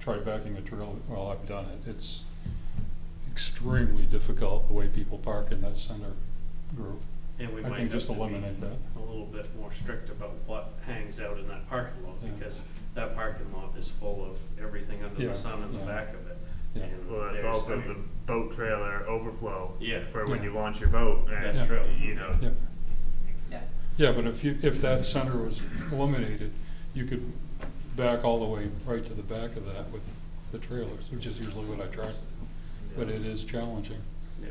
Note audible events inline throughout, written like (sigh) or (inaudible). tried backing a trail, well, I've done it, it's extremely difficult the way people park in that center group. And we I might think have just to be eliminate that. a little bit more strict about what hangs out in that parking lot, Yeah. because that parking lot is full of everything under Yeah, the sun in the yeah. back of it. Yeah. And Well, that's there's- also the boat trailer overflow Yeah. for when Yeah. you launch your boat. and, That's true. You know, Yeah, Yeah, yeah, but if you, if that center was eliminated, you could back all the way right to the back of that with the trailers, which is usually what I try, to do. but it is challenging. Yeah.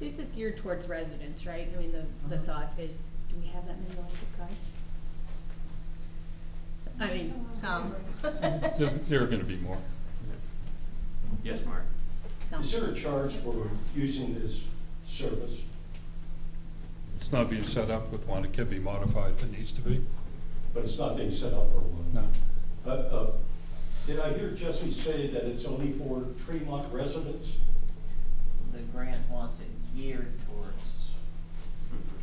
This is geared towards residents, right? I mean, the, the thought is, do we have that many electric cars? I mean, some. There, there are gonna be more. Yes, Mark? (laughs) Some. Is there a charge for using this service? It's not being set up with one, it can be modified if it needs to be, But it's not being set up for one. no. Uh, uh, Did I hear Jesse say that it's only for Tremont residents? the grant wants it geared towards,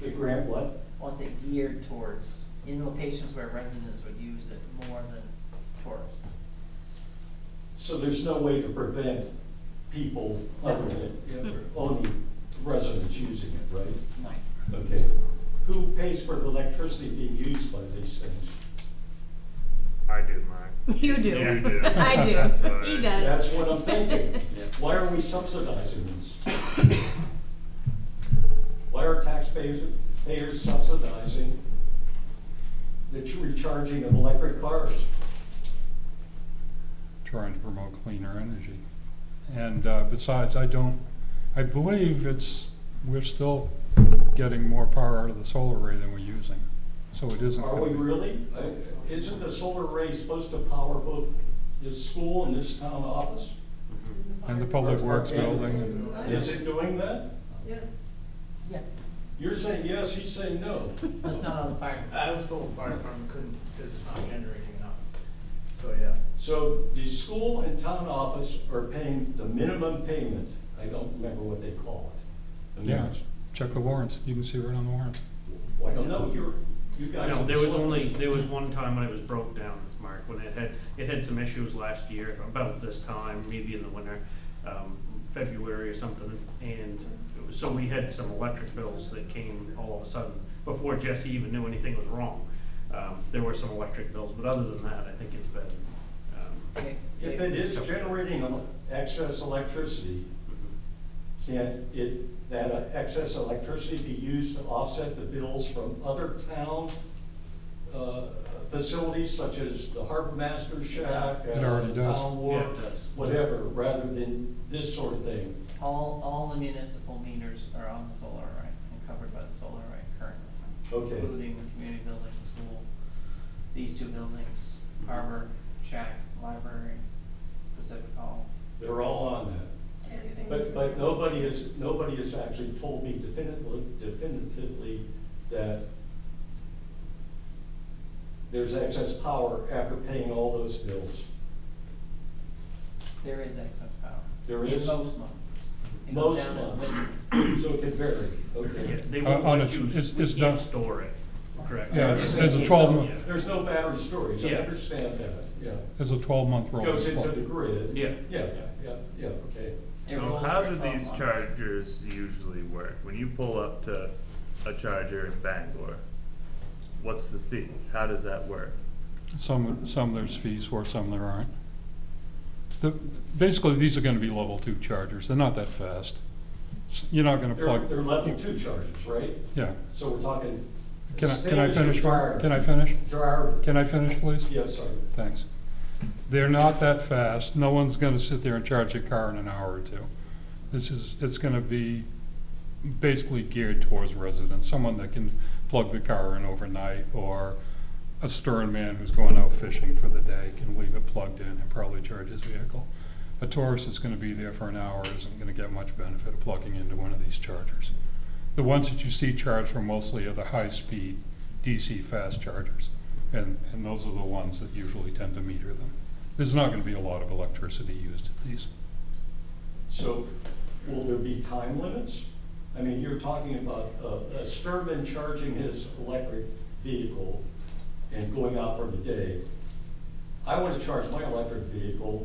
The grant what? wants it geared towards in locations where residents would use it more than tourists. So there's no way to prevent people other than, only residents using it, right? No, Okay. Who pays for the electricity being used by these things? I do mine. You do. You do. (laughs) I do. That's what He I- does. That's what I'm thinking. (laughs) Yeah. Why are we subsidizing this? Why are taxpayers, payers subsidizing the ch- recharging of electric cars? trying to promote cleaner energy. And uh, besides, I don't, I believe it's, we're still getting more power out of the solar array than we're using. So it isn't. Are we really? Uh, Isn't the solar array supposed to power both this school and this town office? And the public works building. Is it doing that? yeah, You're saying yes, he's saying no. that's not on the fire. I was told the fire department couldn't, because it's not generating enough. So, yeah. So the school and town office are paying the minimum payment. I don't remember what they call it. The Yeah, minimum. check the warrants. You can see right on the warrant. Well, I don't know, you're, you guys. No, are there was slow. only, there was one time when it was broke down, Mark, when it had, it had some issues last year, about this time, maybe in the winter, um, February or something, and it was- so we had some electric bills that came all of a sudden, before Jesse even knew anything was wrong. Um, there were some electric bills, but other than that, I think it's been, um, They- Uh, If they- it is generating el- excess electricity, can it, that uh, excess electricity be used to offset the bills from other town uh, facilities such as the Harbor Master Shack? It already uh, does. Town yeah, Wharf, it does. whatever, rather than this sort of thing. All, all the municipal meters are on the solar array and covered by the solar array currently. Okay. Including the community building, the school, these two buildings, harbor, shack, library, Pacific Hall. They're all on that. But, but nobody has, nobody has actually told me definitively, definitively that there's excess power after paying all those bills. There is excess power. There In is? most months. It goes Most down in months. winter. So it could vary, Yeah, okay? they Uh, won't on let a- you, it's- we it's can't done. store it, correct? Yeah, it's- it's a Yeah, 12 month- yeah. There's no battery storage, I Yeah. understand that, yeah. There's a twelve-month roll. Goes into the grid. Yeah. Yeah, yeah, yeah, okay. It So rolls how for do 12 these months. chargers usually work? When you pull up to a charger in Bangor, what's the fee? How does that work? Some, some there's fees for, some there aren't. The, basically, these are gonna be level two chargers. They're not that fast. S- You're not gonna They're, plug. they're level two charges, right? Yeah. So we're talking. Can I, can I same as finish, your Mark? dryer. Can I finish? Dryer, Can I finish, please? yeah, sorry. Thanks. They're not that fast. No one's gonna sit there and charge a car in an hour or two. This is, it's gonna be basically geared towards residents, someone that can plug the car in overnight or a stern man who's going out fishing for the day can leave it plugged in and probably charge his vehicle. A tourist that's gonna be there for an hour isn't gonna get much benefit of plugging into one of these chargers. The ones that you see charged are mostly are the high-speed DC fast chargers, and, and those are the ones that usually tend to meter them. There's not gonna be a lot of electricity used at these. So will there be time limits? I mean, you're talking about a, a Sturman charging his electric vehicle and going out for the day. I want to charge my electric vehicle